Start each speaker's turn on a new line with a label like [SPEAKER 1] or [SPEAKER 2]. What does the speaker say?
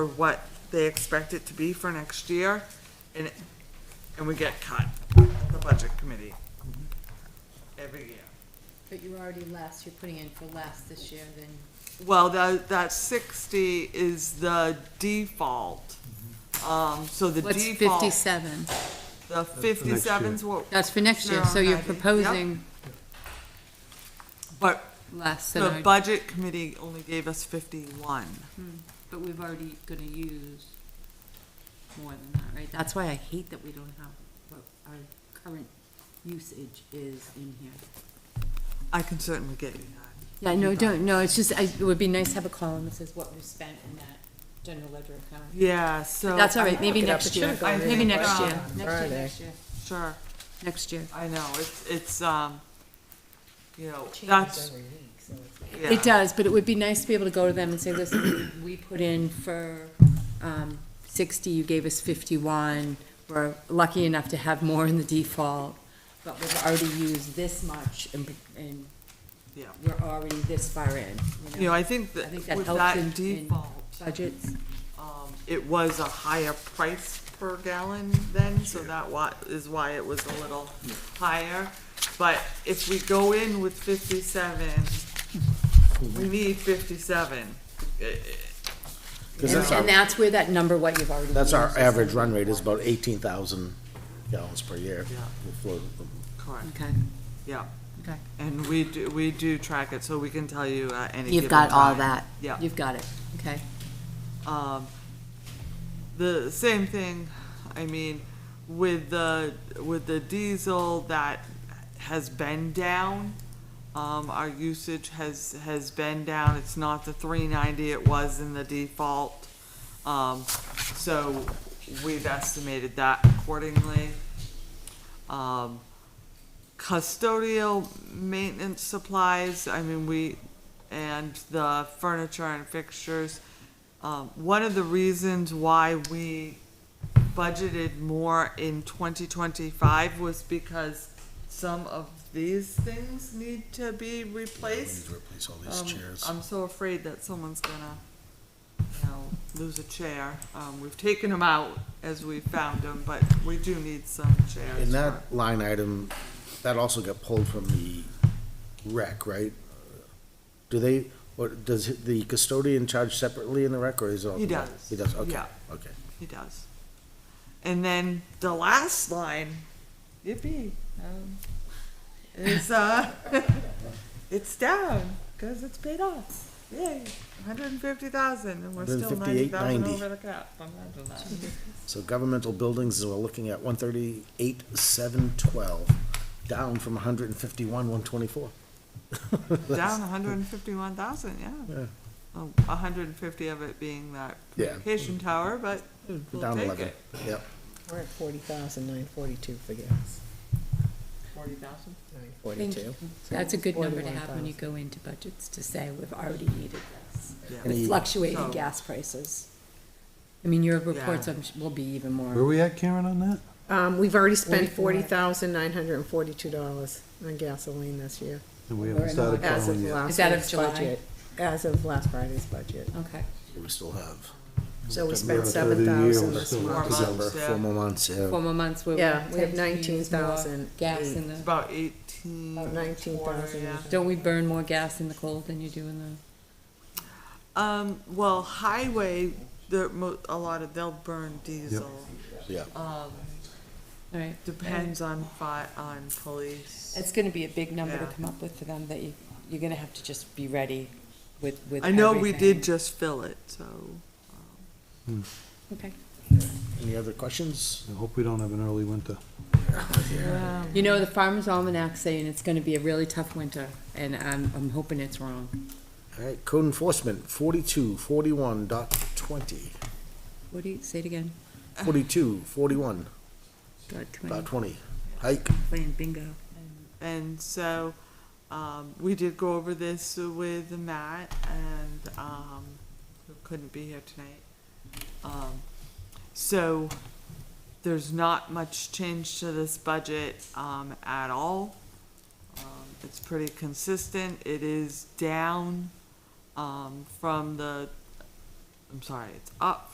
[SPEAKER 1] for what they expect it to be for next year, and, it- and we get cut, the budget committee, every year.
[SPEAKER 2] But you're already less, you're putting in for less this year than,
[SPEAKER 1] Well, that, that sixty is the default. Um, so the
[SPEAKER 2] what's
[SPEAKER 1] default,
[SPEAKER 2] fifty-seven?
[SPEAKER 1] the fifty-seven's what,
[SPEAKER 2] That's for next year,
[SPEAKER 1] No,
[SPEAKER 2] so you're
[SPEAKER 1] ninety, yep.
[SPEAKER 2] proposing
[SPEAKER 1] but
[SPEAKER 2] less
[SPEAKER 1] the
[SPEAKER 2] than our,
[SPEAKER 1] budget committee only gave us fifty-one.
[SPEAKER 2] but we've already gonna use more than that, right? That's why I hate that we don't have what our current usage is in here.
[SPEAKER 1] I can certainly get you that.
[SPEAKER 2] Yeah, no, don't, no, it's just, I, it would be nice to have a column that says what we spent in that general ledger account.
[SPEAKER 1] Yeah, so.
[SPEAKER 2] That's all
[SPEAKER 1] I
[SPEAKER 2] right,
[SPEAKER 1] can
[SPEAKER 2] maybe
[SPEAKER 1] look it up
[SPEAKER 2] next
[SPEAKER 1] to
[SPEAKER 2] year,
[SPEAKER 1] you. I
[SPEAKER 2] maybe
[SPEAKER 1] think,
[SPEAKER 2] next
[SPEAKER 1] uh,
[SPEAKER 2] year, next year, next year,
[SPEAKER 1] Sure,
[SPEAKER 2] next year.
[SPEAKER 1] I know, it's, it's, um, you know, that's, yeah.
[SPEAKER 2] It does, but it would be nice to be able to go to them and say, listen, we put in for, um, sixty, you gave us fifty-one. We're lucky enough to have more in the default, but we've already used this much and, and
[SPEAKER 1] Yeah.
[SPEAKER 2] we're already this far in,
[SPEAKER 1] You
[SPEAKER 2] you
[SPEAKER 1] know,
[SPEAKER 2] know?
[SPEAKER 1] I think that
[SPEAKER 2] I think that
[SPEAKER 1] with
[SPEAKER 2] helps in-
[SPEAKER 1] that
[SPEAKER 2] in
[SPEAKER 1] default,
[SPEAKER 2] Budgets,
[SPEAKER 1] um, it was a higher price per gallon then, so that wa- is why it was a little higher. But if we go in with fifty-seven, we need fifty-seven. Eh, eh,
[SPEAKER 2] and,
[SPEAKER 3] Because that's
[SPEAKER 2] and
[SPEAKER 3] our,
[SPEAKER 2] that's where that number, what you've already.
[SPEAKER 3] that's our
[SPEAKER 2] used is.
[SPEAKER 3] average run rate is about eighteen thousand gallons per year.
[SPEAKER 1] Yeah.
[SPEAKER 3] We'll float them.
[SPEAKER 1] Correct,
[SPEAKER 2] Okay,
[SPEAKER 1] yeah,
[SPEAKER 2] Mm. okay.
[SPEAKER 1] and we do, we do track it, so we can tell you at any
[SPEAKER 2] You've
[SPEAKER 1] given
[SPEAKER 2] got all
[SPEAKER 1] time.
[SPEAKER 2] that.
[SPEAKER 1] Yeah.
[SPEAKER 2] You've got it, okay.
[SPEAKER 1] Um, the same thing, I mean, with the, with the diesel that has been down, um, our usage has, has been down, it's not the three ninety it was in the default. Um, so we've estimated that accordingly. Um, custodial maintenance supplies, I mean, we, and the furniture and fixtures. Um, one of the reasons why we budgeted more in twenty twenty-five was because some of these things need to be
[SPEAKER 3] We need
[SPEAKER 1] replaced.
[SPEAKER 3] to replace all these
[SPEAKER 1] Um,
[SPEAKER 3] chairs.
[SPEAKER 1] I'm so afraid that someone's gonna, you know, lose a chair. Um, we've taken them out as we found them, but we do need some chairs.
[SPEAKER 3] And
[SPEAKER 1] for-
[SPEAKER 3] that line item, that also got pulled from the rec, right? Do they, or does the custodian charge separately in the rec, or is it? all
[SPEAKER 1] He
[SPEAKER 3] combined?
[SPEAKER 1] does.
[SPEAKER 3] He does, okay,
[SPEAKER 1] Yeah.
[SPEAKER 3] okay.
[SPEAKER 1] He does. And then the last line, yippee, um, is, uh, it's down, cause it's paid off. Yay, hundred and fifty thousand, and we're still ninety thousand
[SPEAKER 3] 158.90.
[SPEAKER 1] over the cap. Imagine that.
[SPEAKER 3] So governmental buildings, we're looking at one thirty-eight, seven twelve, down from hundred and fifty-one, one twenty-four.
[SPEAKER 1] Down hundred and fifty-one thousand, yeah.
[SPEAKER 3] Yeah,
[SPEAKER 1] Oh, A hundred and fifty of it being that
[SPEAKER 3] Yeah.
[SPEAKER 1] communication tower, but we'll
[SPEAKER 3] down
[SPEAKER 1] take
[SPEAKER 3] eleven,
[SPEAKER 1] it.
[SPEAKER 3] yep.
[SPEAKER 4] We're at forty thousand nine forty-two for gas,
[SPEAKER 1] Forty thousand?
[SPEAKER 4] nine
[SPEAKER 2] Thank
[SPEAKER 4] forty-two.
[SPEAKER 2] you. That's a good number to have when you
[SPEAKER 4] 41,000.
[SPEAKER 2] go into budgets, to say we've already needed this.
[SPEAKER 1] Yeah,
[SPEAKER 3] Any-
[SPEAKER 2] With fluctuating
[SPEAKER 1] So-
[SPEAKER 2] gas prices. I mean, your reports
[SPEAKER 1] Yeah.
[SPEAKER 2] I'm su- will be even
[SPEAKER 5] Where are
[SPEAKER 2] more.
[SPEAKER 5] we at, Karen, on that?
[SPEAKER 4] Um, we've already spent
[SPEAKER 2] Forty-four.
[SPEAKER 4] forty thousand nine hundred and forty-two dollars on gasoline this year,
[SPEAKER 5] And we
[SPEAKER 2] We're
[SPEAKER 5] haven't
[SPEAKER 2] in August.
[SPEAKER 5] started
[SPEAKER 4] as of
[SPEAKER 5] plowing yet.
[SPEAKER 4] last
[SPEAKER 2] Is that of
[SPEAKER 4] week's
[SPEAKER 2] July?
[SPEAKER 4] budget. As of last Friday's budget.
[SPEAKER 2] Okay.
[SPEAKER 3] We still have
[SPEAKER 4] So
[SPEAKER 5] September,
[SPEAKER 4] we spent
[SPEAKER 5] third of
[SPEAKER 4] seven
[SPEAKER 5] the year,
[SPEAKER 4] thousand
[SPEAKER 5] we're
[SPEAKER 4] this
[SPEAKER 5] still-
[SPEAKER 4] month.
[SPEAKER 1] Four
[SPEAKER 3] December,
[SPEAKER 1] months, yeah.
[SPEAKER 3] four more months, yeah.
[SPEAKER 2] Four more months where we
[SPEAKER 4] Yeah, we have
[SPEAKER 2] tend to use more
[SPEAKER 4] 19,000
[SPEAKER 2] Gas in
[SPEAKER 4] eight.
[SPEAKER 1] It's
[SPEAKER 2] the,
[SPEAKER 1] about eighteen.
[SPEAKER 4] About 19,000.
[SPEAKER 1] Yeah.
[SPEAKER 2] don't we burn more gas in the cold than you do in the,
[SPEAKER 1] Um, well, highway, there, mo- a lot of, they'll burn diesel.
[SPEAKER 3] Yeah.
[SPEAKER 1] Um,
[SPEAKER 2] all right?
[SPEAKER 1] depends on fi- on police.
[SPEAKER 2] It's gonna be a big number to
[SPEAKER 1] Yeah.
[SPEAKER 2] come up with for them, that you, you're gonna have to just be ready with, with
[SPEAKER 1] I know we did
[SPEAKER 2] everything.
[SPEAKER 1] just fill it, so.
[SPEAKER 2] Okay.
[SPEAKER 1] Uh.
[SPEAKER 3] Any other questions?
[SPEAKER 5] I hope we don't have an early winter.
[SPEAKER 2] You know, the Farmer's Almanac saying it's gonna be a really tough winter, and I'm, I'm hoping it's wrong.
[SPEAKER 3] All right, code enforcement, forty-two, forty-one dot twenty,
[SPEAKER 2] What do you, say it again?
[SPEAKER 3] forty-two, forty-one
[SPEAKER 2] Dot
[SPEAKER 3] dot
[SPEAKER 2] twenty,
[SPEAKER 3] twenty, hike.
[SPEAKER 2] playing bingo.
[SPEAKER 1] And so, um, we did go over this with Matt and, um, who couldn't be here tonight. Um, so, there's not much change to this budget, um, at all. Um, it's pretty consistent, it is down, um, from the, I'm sorry, it's up